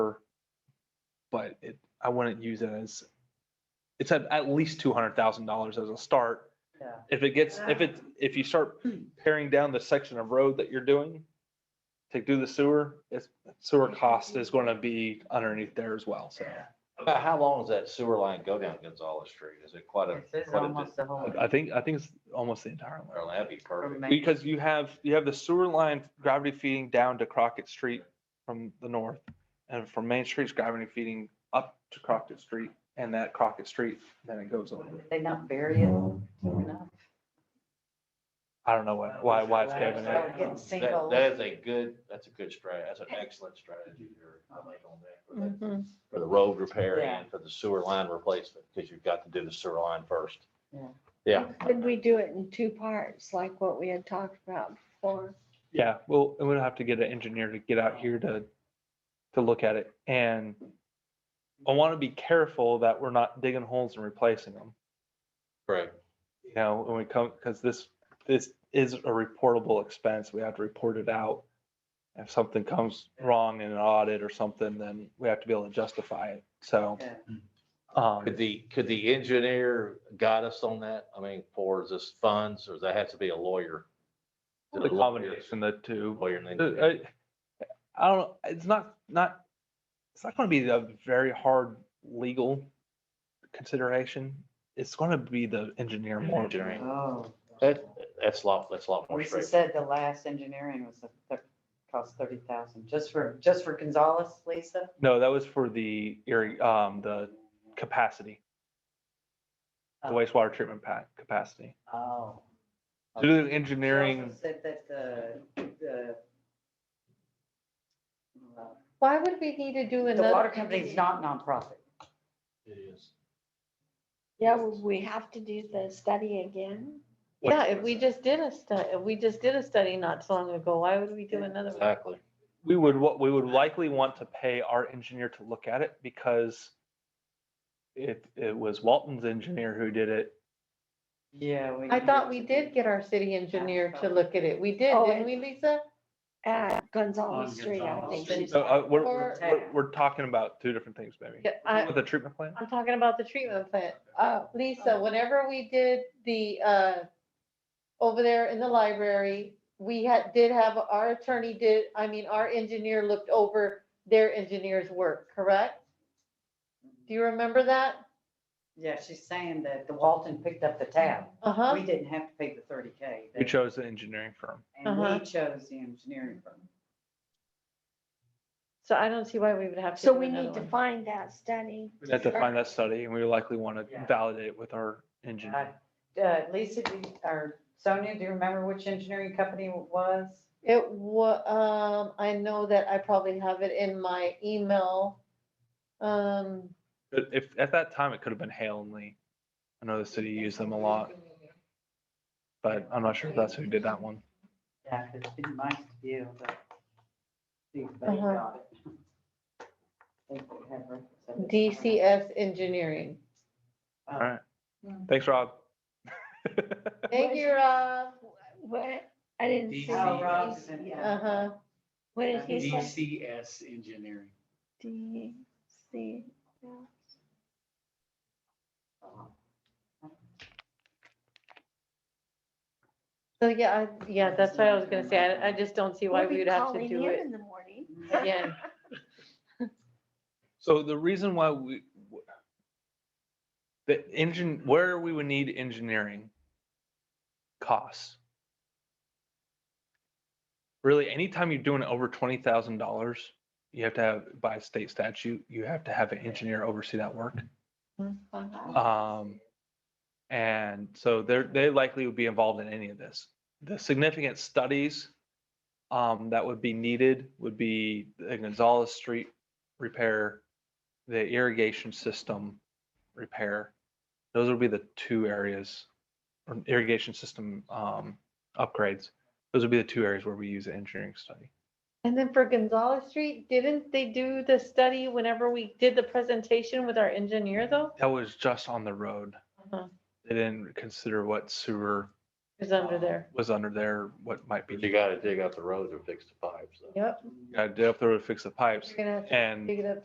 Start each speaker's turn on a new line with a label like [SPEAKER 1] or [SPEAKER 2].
[SPEAKER 1] but it, I wouldn't use it as, it's at, at least two hundred thousand dollars as a start.
[SPEAKER 2] Yeah.
[SPEAKER 1] If it gets, if it, if you start paring down the section of road that you're doing to do the sewer, it's sewer cost is gonna be underneath there as well, so.
[SPEAKER 3] About how long does that sewer line go down Gonzalez Street? Is it quite a?
[SPEAKER 2] This is
[SPEAKER 3] quite a
[SPEAKER 2] almost the whole.
[SPEAKER 1] I think, I think it's almost the entire
[SPEAKER 3] Well,
[SPEAKER 1] line.
[SPEAKER 3] that'd be perfect.
[SPEAKER 2] Main-
[SPEAKER 1] Because you have, you have the sewer line gravity feeding down to Crockett Street from the north. And from Main Street's gravity feeding up to Crockett Street and that Crockett Street, then it goes over.
[SPEAKER 2] They not bury it deep enough.
[SPEAKER 1] I don't know why, why, why it's caving in.
[SPEAKER 2] Start getting
[SPEAKER 3] That, that
[SPEAKER 2] sinkholes.
[SPEAKER 3] is a good, that's a good strategy. That's an excellent strategy there. I like on that for the-
[SPEAKER 2] Mhm.
[SPEAKER 3] For the road repair
[SPEAKER 2] Yeah.
[SPEAKER 3] and for the sewer line replacement, because you've got to do the sewer line first.
[SPEAKER 2] Yeah.
[SPEAKER 3] Yeah.
[SPEAKER 4] Could we do it in two parts, like what we had talked about before?
[SPEAKER 1] Yeah, well, and we'll have to get an engineer to get out here to, to look at it. And I want to be careful that we're not digging holes and replacing them,
[SPEAKER 3] Correct.
[SPEAKER 1] you know, when we come, because this, this is a reportable expense. We have to report it out. If something comes wrong in an audit or something, then we have to be able to justify it. So,
[SPEAKER 2] Yeah.
[SPEAKER 1] um,
[SPEAKER 3] Could the, could the engineer guide us on that? I mean, for this funds, or does that have to be a lawyer?
[SPEAKER 1] the
[SPEAKER 3] Lawyer-
[SPEAKER 1] combination of the two.
[SPEAKER 3] Lawyer and
[SPEAKER 1] Uh,
[SPEAKER 3] engineer.
[SPEAKER 1] I I don't, know. it's not, not, it's not gonna be the very hard legal consideration. It's gonna be the engineer more.
[SPEAKER 3] Engineering.
[SPEAKER 2] Oh.
[SPEAKER 3] That, that's a lot, that's a lot more
[SPEAKER 2] Lisa
[SPEAKER 3] straightforward.
[SPEAKER 2] said the last engineering was, a thir- cost thirty thousand, just for, just for Gonzalez, Lisa?
[SPEAKER 1] No, that was for the, irri- um, the capacity, the
[SPEAKER 2] Oh.
[SPEAKER 1] wastewater treatment pack capacity.
[SPEAKER 2] Oh.
[SPEAKER 1] To do the
[SPEAKER 2] She also
[SPEAKER 1] engineering,
[SPEAKER 2] Said that the, the. uh,
[SPEAKER 4] Why would we need to do
[SPEAKER 2] The
[SPEAKER 4] another?
[SPEAKER 2] water company's not nonprofit.
[SPEAKER 3] It is.
[SPEAKER 4] Yeah, would we have to do the study again? Yeah, if we just did a stu, if we just did a study not so long ago, why would we do another one?
[SPEAKER 3] Exactly.
[SPEAKER 1] we would, what, we would likely want to pay our engineer to look at it because it, it was Walton's engineer who did it.
[SPEAKER 2] Yeah.
[SPEAKER 4] I thought we did get our city engineer to look at it. We did,
[SPEAKER 2] Oh,
[SPEAKER 4] didn't
[SPEAKER 2] it-
[SPEAKER 4] we, Lisa?
[SPEAKER 5] At
[SPEAKER 3] On
[SPEAKER 5] Gonzalez Street, I
[SPEAKER 3] Gonzalez
[SPEAKER 5] think.
[SPEAKER 2] Street.
[SPEAKER 5] she's-
[SPEAKER 1] So, uh, we're,
[SPEAKER 4] Or-
[SPEAKER 1] we're, we're talking about two different things maybe.
[SPEAKER 4] Yeah, I,
[SPEAKER 1] With the treatment plant?
[SPEAKER 4] I'm talking about the treatment plant. Uh, Lisa, whenever we did the, uh, over there in the library, we had, did have, our attorney did, I mean, our engineer looked over their engineer's work, correct? Do you remember that?
[SPEAKER 2] Yeah, she's saying that the Walton picked up the tab.
[SPEAKER 4] Uh-huh.
[SPEAKER 2] We didn't have to pay the thirty K.
[SPEAKER 1] We chose the engineering firm.
[SPEAKER 2] And we
[SPEAKER 4] Uh-huh.
[SPEAKER 2] chose the engineering firm.
[SPEAKER 4] So I don't see why we would have to
[SPEAKER 5] So
[SPEAKER 4] do
[SPEAKER 5] we
[SPEAKER 4] another
[SPEAKER 5] need to
[SPEAKER 4] one.
[SPEAKER 5] find that study.
[SPEAKER 1] We had to
[SPEAKER 5] Sure.
[SPEAKER 1] find that study and we likely want
[SPEAKER 2] Yeah.
[SPEAKER 1] to validate it with our engineer.
[SPEAKER 2] Uh, Lisa, do you- or Sonia, do you remember which engineering company it was?
[SPEAKER 4] It wa, um, I know that I probably have it in my email. Um,
[SPEAKER 1] But if, at that time, it could have been Hale and Lee. I know the city used them a lot. But I'm not sure if that's who did that one.
[SPEAKER 2] Yeah, 'cause it'd been nice to be able to see if they
[SPEAKER 4] Uh-huh.
[SPEAKER 2] got it. Think they have records of it.
[SPEAKER 4] DCS Engineering.
[SPEAKER 2] Oh,
[SPEAKER 1] Alright. Thanks, Rob.
[SPEAKER 4] Thank you, Rob.
[SPEAKER 5] What, I didn't see.
[SPEAKER 2] Oh, Rob's in
[SPEAKER 5] Yeah.
[SPEAKER 2] here.
[SPEAKER 4] Uh-huh.
[SPEAKER 5] What did he say?
[SPEAKER 6] DCS engineering.
[SPEAKER 5] D, C.
[SPEAKER 4] So, yeah, I, yeah, that's what I was gonna say. I, I just don't see why
[SPEAKER 5] We'll be
[SPEAKER 4] we would have to
[SPEAKER 5] calling
[SPEAKER 4] do
[SPEAKER 5] him
[SPEAKER 4] it
[SPEAKER 5] In the morning.
[SPEAKER 4] Uh-huh. again.
[SPEAKER 1] So the reason why we, the engine, where we would need engineering costs. Really, anytime you're doing over twenty thousand dollars, you have to have, by state statute, you have to have an engineer oversee that work. Um, and so they're, they likely would be involved in any of this. The significant studies um, that would be needed would be the Gonzalez Street repair, the irrigation system repair. Those would be the two areas, or irrigation system um, upgrades. Those would be the two areas where we use the engineering study.
[SPEAKER 4] And then for Gonzalez Street, didn't they do the study whenever we did the presentation with our engineer though?
[SPEAKER 1] That was just on the road.
[SPEAKER 4] Uh-huh.
[SPEAKER 1] They didn't consider what sewer
[SPEAKER 4] It was under there.
[SPEAKER 1] was under there, what might be.
[SPEAKER 3] But you gotta dig up the road to fix the pipes. though.
[SPEAKER 4] Yep.
[SPEAKER 1] I did up there to fix the pipes
[SPEAKER 4] You're gonna have to
[SPEAKER 1] and
[SPEAKER 4] dig it up